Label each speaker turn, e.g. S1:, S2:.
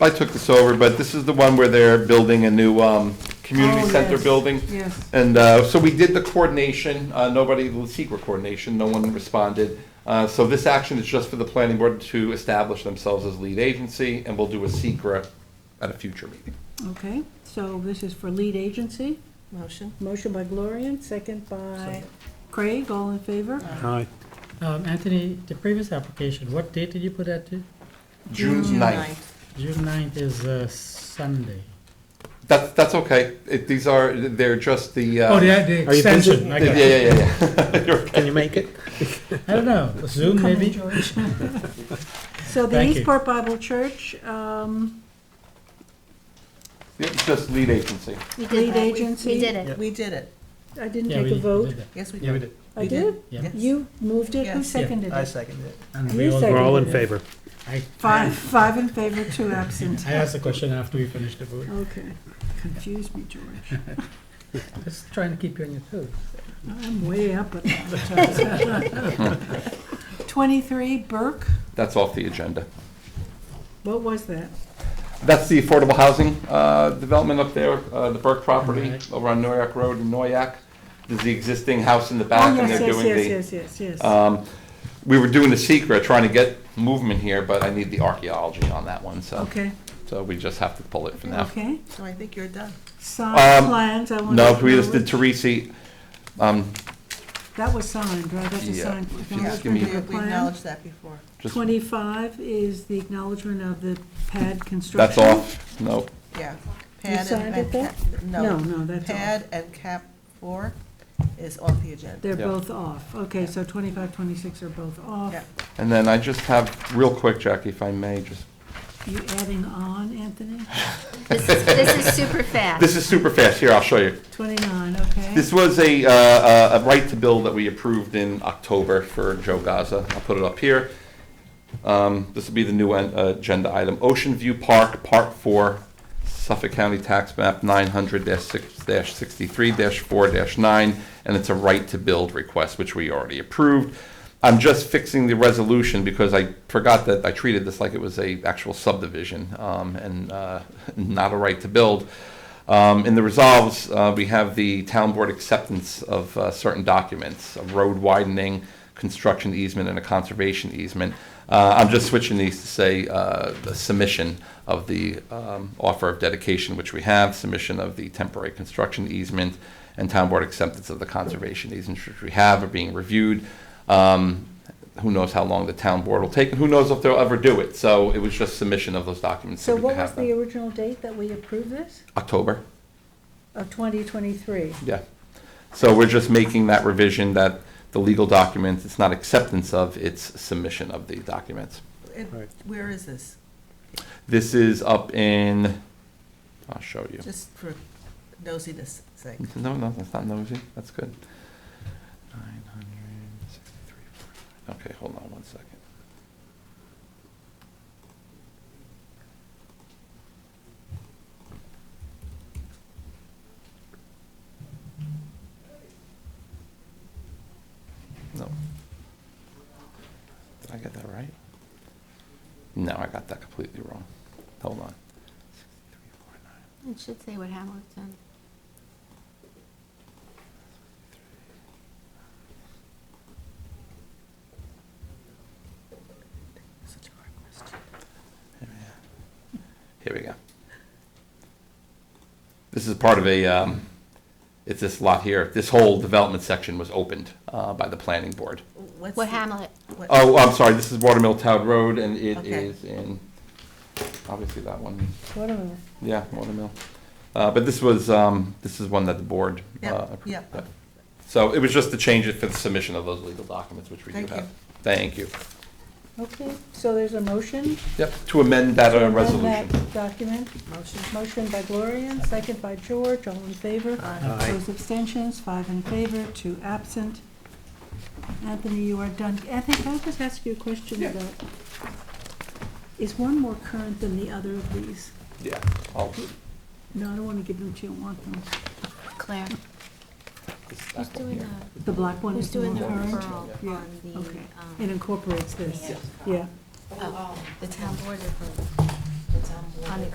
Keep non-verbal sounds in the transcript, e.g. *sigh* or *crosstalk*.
S1: I took this over, but this is the one where they're building a new, um, community
S2: Oh,
S1: center
S2: yes,
S1: building.
S2: Yes.
S1: And uh, so we did the coordination, uh, nobody, the secret coordination, no one responded. Uh, So this action is just for the planning board to establish themselves as lead agency, and we'll do a secret at a future meeting.
S2: Okay, so this is for lead agency.
S3: Motion?
S2: Motion by Gloria, second by Craig, all in favor?
S4: Aye.
S5: Um, Anthony, the previous application, what date did you put that to?
S1: June
S3: June
S1: 9th.
S5: June ninth is uh, Sunday.
S1: That's, that's okay. It- These are, they're just the. uh,
S5: Oh, the, the
S4: Are you
S5: extension, I
S1: Yeah,
S5: got
S1: yeah,
S5: it.
S1: yeah, yeah. *laughs* You're okay.
S4: Can you make it?
S5: I don't know, Zoom
S2: Come in,
S5: maybe? *laughs*
S2: George. So the
S5: Thank you.
S2: Eastport Bible Church, um,
S1: Yeah, Just lead agency.
S6: We did
S2: lead
S6: that. We-
S2: agency.
S6: We did it.
S3: We did it.
S2: I didn't
S5: Yeah, we
S2: take a
S5: did- we
S2: vote.
S5: did that.
S3: Yes, we
S4: Yeah, we
S3: did.
S4: did.
S2: I
S3: We
S2: did?
S5: Yeah.
S3: Yes.
S2: You moved it? Who
S3: Yes.
S2: seconded
S7: I
S2: it?
S7: seconded it.
S5: And
S2: You
S5: we
S2: said
S4: We're all in
S5: voted.
S4: favor.
S5: I-
S2: Five, five in favor, two absent.
S5: I asked the question after we finished the vote.
S2: Okay, confuse me,
S5: *laughs*
S2: George.
S5: Just trying to keep you on your toes.
S2: I'm way up at that. *laughs* Twenty-three Burke,
S1: That's off the agenda.
S2: what was that?
S1: That's the affordable housing uh, development up there, uh, the Burke property
S5: Alright.
S1: over on Noyak Road in Noyak. There's the existing house in the
S2: Oh,
S1: back and
S2: yes,
S1: they're doing the.
S2: yes, yes, yes, yes, yes.
S1: Um, We were doing the secret, trying to get movement here, but I need the archaeology on that one, so,
S2: Okay,
S1: so we just have to pull it for now.
S2: okay.
S3: So I think you're done.
S2: Signed
S1: Um,
S2: plans, I want to.
S1: No, we just did Teresi, um,
S2: That was signed, right? That's a
S1: Yeah,
S2: signed.
S1: if you
S3: Yeah,
S1: just give me-
S2: acknowledgement
S3: We we
S2: of the plan.
S3: acknowledged that before.
S1: just,
S2: Twenty-five is the acknowledgement of the pad construction.
S1: that's off, no,
S3: Yeah. Pad and-
S2: signed it
S3: and
S2: there?
S3: cap-
S2: No,
S3: No.
S2: no, that's off.
S3: Pad and cap four is off the agenda.
S2: They're
S1: Yeah.
S2: both off. Okay, so 25, 26 are both off.
S3: Yeah.
S1: and then I just have, real quick, Jackie, if I may, just,
S2: You adding on,
S1: *laughs*
S2: Anthony?
S6: This is, this is super fast.
S1: this is super fast, here, I'll show you.
S2: 29, okay.
S1: This was a, uh, a a right to bill that we approved in October for Joe Gaza. I'll put it up here. Um, This will be the new en- uh, agenda item. Ocean View Park, Part 4, Suffolk County Tax Map 900-63-4-9, and it's a right to build request, which we already approved. I'm just fixing the resolution because I forgot that I treated this like it was a actual subdivision um, and uh, *laughs* not a right to build. Um, In the resolves, uh, we have the town board acceptance of uh, certain documents, a road widening, construction easement, and a conservation easement. Uh, I'm just switching these to say uh, the submission of the um, offer of dedication, which we have, submission of the temporary construction easement, and town board acceptance of the conservation easement, which we have, are being reviewed. Um, Who knows how long the town board will take, and who knows if they'll ever do it? So it was just submission of those documents.
S2: So
S1: we could
S2: what was
S1: have them.
S2: the original date that we approved this?
S1: October.
S2: Of 2023?
S1: Yeah. So we're just making that revision that the legal document, it's not acceptance of, it's submission of the documents.
S3: And
S4: Right.
S3: Where is this?
S1: This is up in, I'll show you.
S3: Just for nosiness sake.
S1: No, no, that's not nosy. That's good. 963. Okay, hold on one second. No. Did I get that right? No, I got that completely wrong. Hold on. 6349.
S6: It should say what Hamlet's done.
S3: Such a hard question.
S1: Here we go. This is part of a, um, it's this lot here. This whole development section was opened uh, by the planning board.
S3: What's
S6: What
S3: the-
S6: Hamlet?
S3: what-
S1: Oh, I'm sorry, this is Watermill Town Road, and it
S3: Okay.
S1: is in, obviously that one,
S2: What a minute.
S1: yeah, Watermill. Uh, But this was, um, this is one that the board uh,
S3: Yeah,
S1: approved.
S3: yeah.
S1: So it was just to change it for the submission of those legal documents, which we do
S3: Thank you.
S1: have. Thank you.
S2: Okay, so there's a motion?
S1: Yep, to amend that uh,
S2: on
S1: resolution.
S2: that Document,
S3: Motion?
S2: motion by Gloria, second by George, all in favor?
S4: Aye.
S2: Opposed, abstentions, five in favor, two absent. Anthony, you are done. Anthony, can I just ask you a question about, is one more current than the other of these?
S1: Yeah, I'll-
S2: No, I don't want to give them to you, I want them.
S6: Claire,
S1: this
S6: who's
S1: back one
S6: doing
S1: here.
S6: the,
S2: The black one
S6: who's
S2: is the
S6: doing
S2: more
S6: the
S2: current?
S6: referral
S2: Yeah.
S6: on the,
S2: Okay.
S6: um,
S2: It incorporates this, yeah.
S1: Yeah.
S6: oh, the town board referral?
S3: it's on board.
S6: On the